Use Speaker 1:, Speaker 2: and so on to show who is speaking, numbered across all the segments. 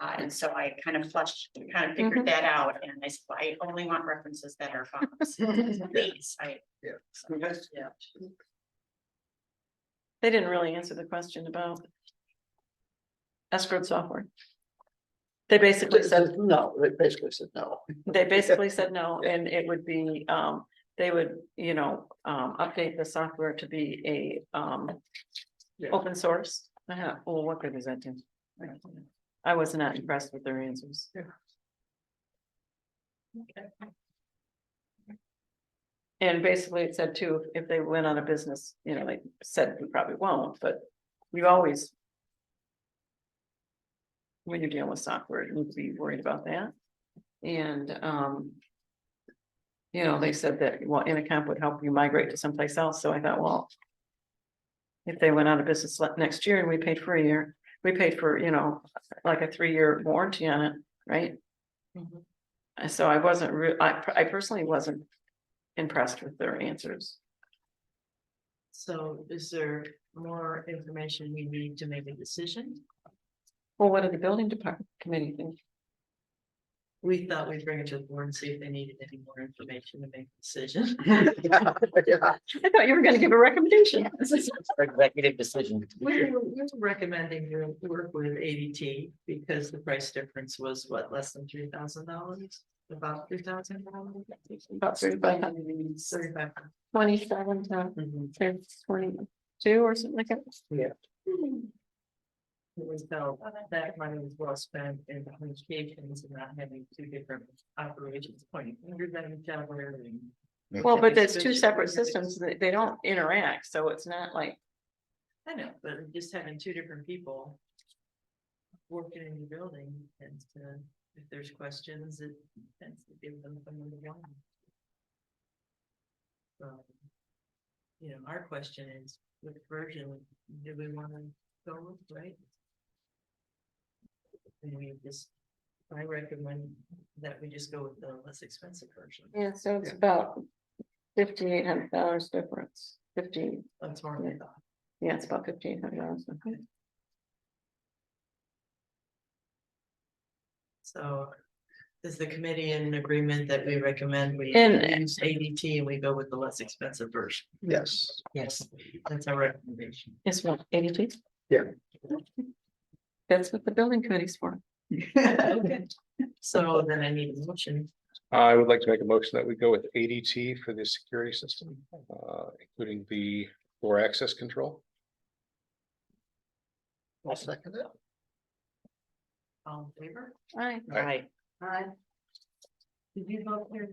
Speaker 1: Uh, and so I kind of flushed, kind of figured that out, and I said, I only want references that are Fox. Please, I.
Speaker 2: Yeah.
Speaker 1: So, Yeah.
Speaker 3: They didn't really answer the question about. Escrow software. They basically
Speaker 2: It
Speaker 3: said,
Speaker 2: says no, it basically said no.
Speaker 3: they basically said no, and it would be, um, they would, you know, um, update the software to be a, um.
Speaker 2: Yeah.
Speaker 3: Open source, uh, well, what good is that do? I was not impressed with their answers.
Speaker 2: Yeah.
Speaker 3: And basically it said too, if they went on a business, you know, they said we probably won't, but you always. When you're dealing with software, you need to be worried about that. And, um. You know, they said that, well, Intercom would help you migrate to someplace else, so I thought, well. If they went out of business le- next year and we paid for a year, we paid for, you know, like a three-year warranty on it, right?
Speaker 4: Mm-hmm.
Speaker 3: And so I wasn't re- I, per- I personally wasn't impressed with their answers.
Speaker 4: So is there more information we need to make a decision?
Speaker 3: Well, what did the building department committee think?
Speaker 4: We thought we'd bring it to the board and see if they needed any more information to make a decision.
Speaker 2: Yeah, yeah.
Speaker 3: I thought you were gonna give a recommendation.
Speaker 5: Executive decision.
Speaker 4: We were we were recommending to work with ADT because the price difference was what, less than three thousand dollars? About three thousand dollars?
Speaker 3: About thirty-five,
Speaker 4: Thirty-five. Mm-hmm.
Speaker 3: twenty-seven to twenty-two or something like that.
Speaker 4: It was felt that money was well spent in communications and not having two different operations pointing fingers at each other and.
Speaker 3: Well, but
Speaker 4: it's
Speaker 3: that's two separate systems. They, they don't interact, so it's not like,
Speaker 4: I know, but just having two different people. Working in the building and to, if there's questions, it tends to give them someone to go. So, You know, our question is, which version do we wanna go with, right? And we just, I recommend that we just go with the less expensive version.
Speaker 3: yeah, so it's about fifty-eight hundred dollars difference, fifteen.
Speaker 4: That's more my thought.
Speaker 3: Yeah, it's about fifteen hundred dollars.
Speaker 4: So is the committee in agreement that we recommend we
Speaker 3: And-
Speaker 4: use ADT and we go with the less expensive version?
Speaker 2: Yes,
Speaker 4: Yes. That's our recommendation.
Speaker 3: It's what, eighty feet?
Speaker 2: Yeah.
Speaker 3: That's what the building committee's for.
Speaker 4: Okay. So then I need a motion.
Speaker 6: I would like to make a motion that we go with ADT for the security system, uh, including the door access control.
Speaker 2: I'll second it.
Speaker 4: All in favor?
Speaker 3: Right.
Speaker 6: Aye.
Speaker 4: Aye. Did you vote here?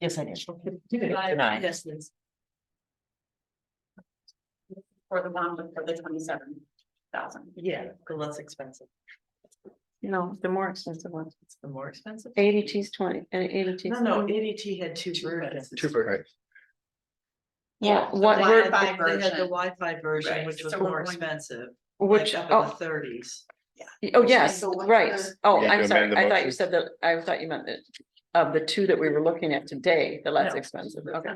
Speaker 5: Yes, I did. Did
Speaker 4: Aye,
Speaker 5: I?
Speaker 4: Yes, Liz.
Speaker 1: For the one, with- for the twenty-seven thousand.
Speaker 4: Yeah, the less expensive.
Speaker 3: No, the more expensive one.
Speaker 4: It's the more expensive.
Speaker 3: ADT's twenty and ADT's.
Speaker 4: No, no, ADT had two versions.
Speaker 6: Two for,
Speaker 3: Yeah,
Speaker 1: The
Speaker 3: what,
Speaker 4: They
Speaker 3: ver-
Speaker 4: had the- They had the
Speaker 1: version.
Speaker 4: Wi-Fi version,
Speaker 1: Right.
Speaker 4: which was
Speaker 1: So we're
Speaker 4: more
Speaker 1: going-
Speaker 4: expensive,
Speaker 3: which,
Speaker 4: which up in
Speaker 3: oh,
Speaker 4: the thirties.
Speaker 3: oh, yes,
Speaker 1: So what's
Speaker 3: right.
Speaker 1: the-
Speaker 3: Oh,
Speaker 6: You have
Speaker 3: I'm
Speaker 6: to
Speaker 3: sorry.
Speaker 6: amend the
Speaker 3: I thought you
Speaker 6: motion.
Speaker 3: said that, I thought you meant that of the two that we were looking at today, the less
Speaker 4: No.
Speaker 3: expensive. Okay.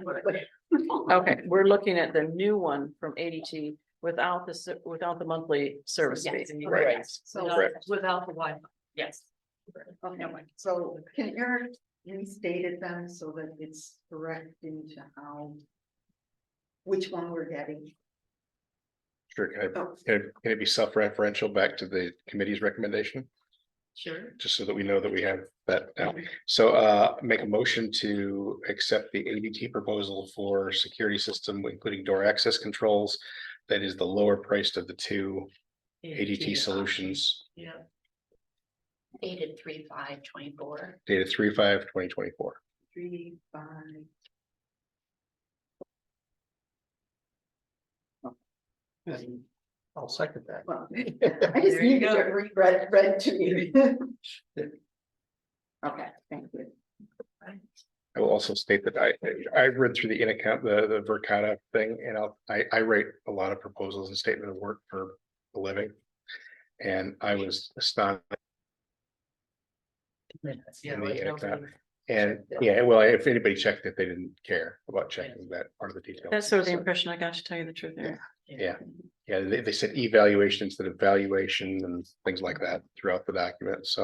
Speaker 3: Okay, we're looking at the new one from ADT without the, ser- without the monthly service fee.
Speaker 1: Yes.
Speaker 6: Right.
Speaker 1: Yes. So,
Speaker 4: Without-
Speaker 6: Correct.
Speaker 4: Without the Wi-Fi.
Speaker 1: yes.
Speaker 7: Okay, so can Eric restate it then so that it's correct into how? Which one we're getting?
Speaker 6: sure, can I-
Speaker 7: Oh,
Speaker 6: can it- can it be self-referential back to the committee's recommendation?
Speaker 4: Sure.
Speaker 6: Just so that we know that we have that. now. So uh, make a motion to accept the ADT proposal for security system, including door access controls. That is the lower priced of the two ADT solutions,
Speaker 4: Yeah,
Speaker 1: Dated three, five, twenty-four.
Speaker 6: dated three, five, twenty twenty-four.
Speaker 7: Three, five.
Speaker 2: And I'll second that.
Speaker 7: Well, I just
Speaker 4: There you
Speaker 7: needed
Speaker 4: go.
Speaker 7: it re- read, read to me. Okay, thank you.
Speaker 6: I will also state that I, I read through the in account, the, the Vercata thing, and I'll, I, I write a lot of proposals and statement of work for a living. And I was astonished,
Speaker 4: minutes, yeah.
Speaker 6: And
Speaker 4: like
Speaker 6: the
Speaker 4: nobody-
Speaker 6: and, yeah, well, if anybody checked it, they didn't care about checking that part of the detail.
Speaker 3: That's sort of the impression I got, to tell you the truth. Eric.
Speaker 6: Yeah, yeah, they, they said evaluation instead of valuation and things like that throughout the document, so.